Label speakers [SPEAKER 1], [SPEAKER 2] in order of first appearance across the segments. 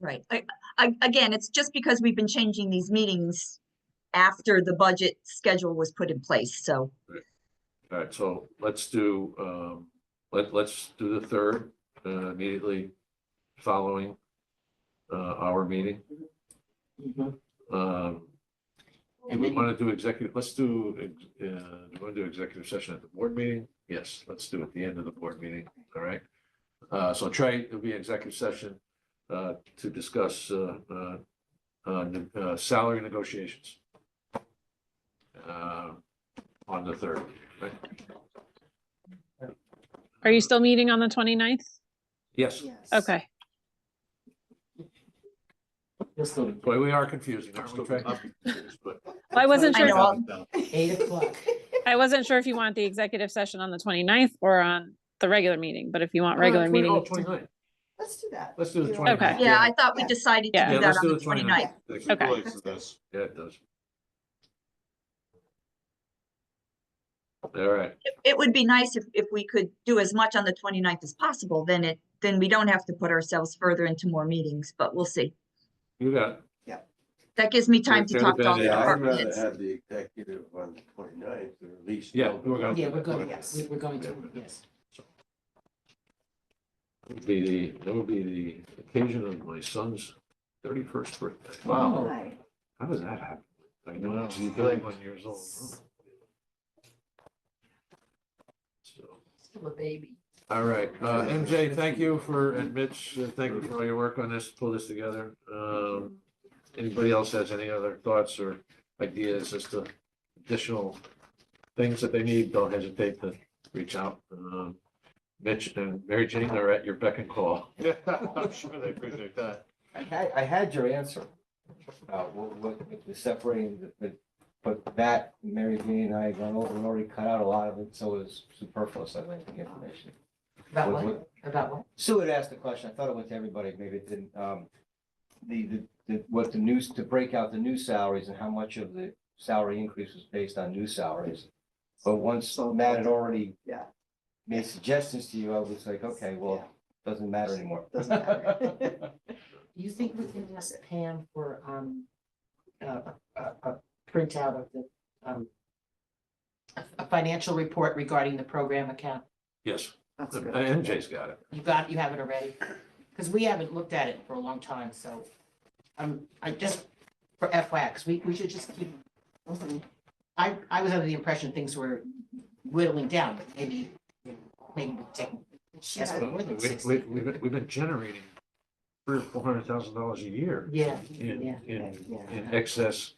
[SPEAKER 1] Right. I, I, again, it's just because we've been changing these meetings after the budget schedule was put in place, so.
[SPEAKER 2] All right, so let's do, um, let, let's do the third, uh, immediately following, uh, our meeting.
[SPEAKER 3] Mm-hmm.
[SPEAKER 2] Um, do
[SPEAKER 4] And
[SPEAKER 2] we
[SPEAKER 4] then,
[SPEAKER 2] want to do executive, let's do, uh, do we want to do executive session at the board meeting? Yes, let's do it at the end of the board meeting, all right? Uh, so Trey, it'll be executive session, uh, to discuss, uh, uh, uh, ne- uh, salary negotiations. Uh, on the third, right?
[SPEAKER 5] Are you still meeting on the 29th?
[SPEAKER 2] Yes,
[SPEAKER 5] Okay.
[SPEAKER 4] Just the
[SPEAKER 2] boy, we are confusing, aren't we, Trey? But
[SPEAKER 5] Well, I wasn't
[SPEAKER 1] I
[SPEAKER 5] sure,
[SPEAKER 1] know.
[SPEAKER 4] eight o'clock.
[SPEAKER 5] I wasn't sure if you want the executive session on the 29th or on the regular meeting, but if you want
[SPEAKER 1] Uh,
[SPEAKER 5] regular
[SPEAKER 2] Oh,
[SPEAKER 5] meeting.
[SPEAKER 2] 29.
[SPEAKER 3] Let's do that.
[SPEAKER 2] Let's do the
[SPEAKER 3] You know,
[SPEAKER 2] 29th.
[SPEAKER 5] Okay.
[SPEAKER 1] Yeah, I thought we decided to
[SPEAKER 5] Yeah.
[SPEAKER 2] Yeah,
[SPEAKER 1] do that
[SPEAKER 2] let's
[SPEAKER 1] on
[SPEAKER 2] do
[SPEAKER 1] the
[SPEAKER 2] the 29th.
[SPEAKER 1] twenty-ninth.
[SPEAKER 5] Okay.
[SPEAKER 2] Yeah, it does. All right,
[SPEAKER 1] It would be nice if, if we could do as much on the 29th as possible, then it, then we don't have to put ourselves further into more meetings, but we'll see.
[SPEAKER 2] you got, it.
[SPEAKER 1] That gives me time to
[SPEAKER 2] Fair
[SPEAKER 1] talk to all the
[SPEAKER 2] bit,
[SPEAKER 6] Yeah, I'd
[SPEAKER 1] department
[SPEAKER 6] rather
[SPEAKER 1] heads.
[SPEAKER 6] have the executive on the twenty-ninth, or at least.
[SPEAKER 2] Yeah, we're gonna-
[SPEAKER 4] Yeah, we're going,
[SPEAKER 3] Yes.
[SPEAKER 4] we- we're going to, yes.
[SPEAKER 2] it'll be the, that would be the occasion of my son's thirty-first birthday. Wow,
[SPEAKER 3] Right.
[SPEAKER 2] how does that happen? I know,
[SPEAKER 6] Wow.
[SPEAKER 2] he's thirty-one years old. So,
[SPEAKER 3] Still a baby.
[SPEAKER 2] all right, uh, MJ, thank you for, and Mitch, uh, thank you for all your work on this, pull this together. Um, anybody else has any other thoughts or ideas as to additional things that they need, don't hesitate to reach out. Um, Mitch and Mary Jane are at your beck and call.
[SPEAKER 6] Yeah, I'm sure they appreciate that.
[SPEAKER 7] I had, I had your answer. Uh, what, what, with the separating, the- the- but that, Mary Jane and I gone over and already cut out a lot of it, so it's superfluous, I think, the information.
[SPEAKER 3] About
[SPEAKER 7] What-
[SPEAKER 3] what? About what?
[SPEAKER 7] Sue had asked the question, I thought it went to everybody, maybe it didn't, um, the, the, the, what the news, to break out the new salaries and how much of the salary increase was based on new salaries. But once Matt had already
[SPEAKER 3] Yeah.
[SPEAKER 7] made suggestions to you, I was like, okay, well, doesn't matter anymore.
[SPEAKER 3] Doesn't matter. Do you think we can ask Pam for, um, a, a, a printout of the, um, a, a financial report regarding the program account?
[SPEAKER 2] Yes,
[SPEAKER 3] That's
[SPEAKER 2] MJ's Uh, got it.
[SPEAKER 3] You got, you have it already? Because we haven't looked at it for a long time, so, um, I just, for FYI, because we, we should just keep. I, I was under the impression things were whittling down, but maybe, maybe we take, yes,
[SPEAKER 2] We,
[SPEAKER 3] more than
[SPEAKER 2] we,
[SPEAKER 3] sixty.
[SPEAKER 2] we've, been- we've been generating three or four hundred thousand dollars a year
[SPEAKER 3] Yeah, yeah.
[SPEAKER 2] in, in, in excess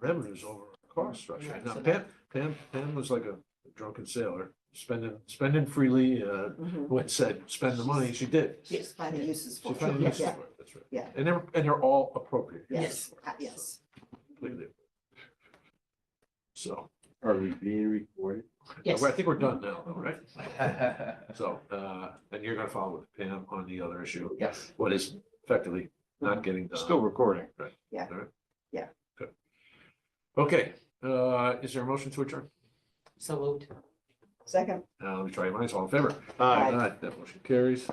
[SPEAKER 2] revenues over our cost structure.
[SPEAKER 3] Right,
[SPEAKER 2] Now,
[SPEAKER 3] so
[SPEAKER 2] Pam, Pam, Pam was like a drunken sailor, spending, spending freely, uh, when said, spend the money, she did.
[SPEAKER 3] Yes,
[SPEAKER 8] finding uses
[SPEAKER 2] She
[SPEAKER 8] for.
[SPEAKER 2] found
[SPEAKER 8] it.
[SPEAKER 2] uses
[SPEAKER 8] Yeah,
[SPEAKER 2] for it, that's right.
[SPEAKER 8] Yeah.
[SPEAKER 2] And they're, and they're all appropriate.
[SPEAKER 3] Yes.
[SPEAKER 8] uh, Yes.
[SPEAKER 2] Completely. So,
[SPEAKER 6] Are we being recorded?
[SPEAKER 2] I
[SPEAKER 3] yes.
[SPEAKER 2] think we're done now, though, right? So, uh, and you're gonna follow with Pam on the other issue,
[SPEAKER 7] Yes.
[SPEAKER 2] what is effectively not getting done.
[SPEAKER 6] Still recording.
[SPEAKER 2] Okay, uh, is there a motion to adjourn?
[SPEAKER 3] So moved.
[SPEAKER 8] Second.
[SPEAKER 2] Uh, let me try your minds, all in favor?
[SPEAKER 6] Aye.
[SPEAKER 2] That motion carries.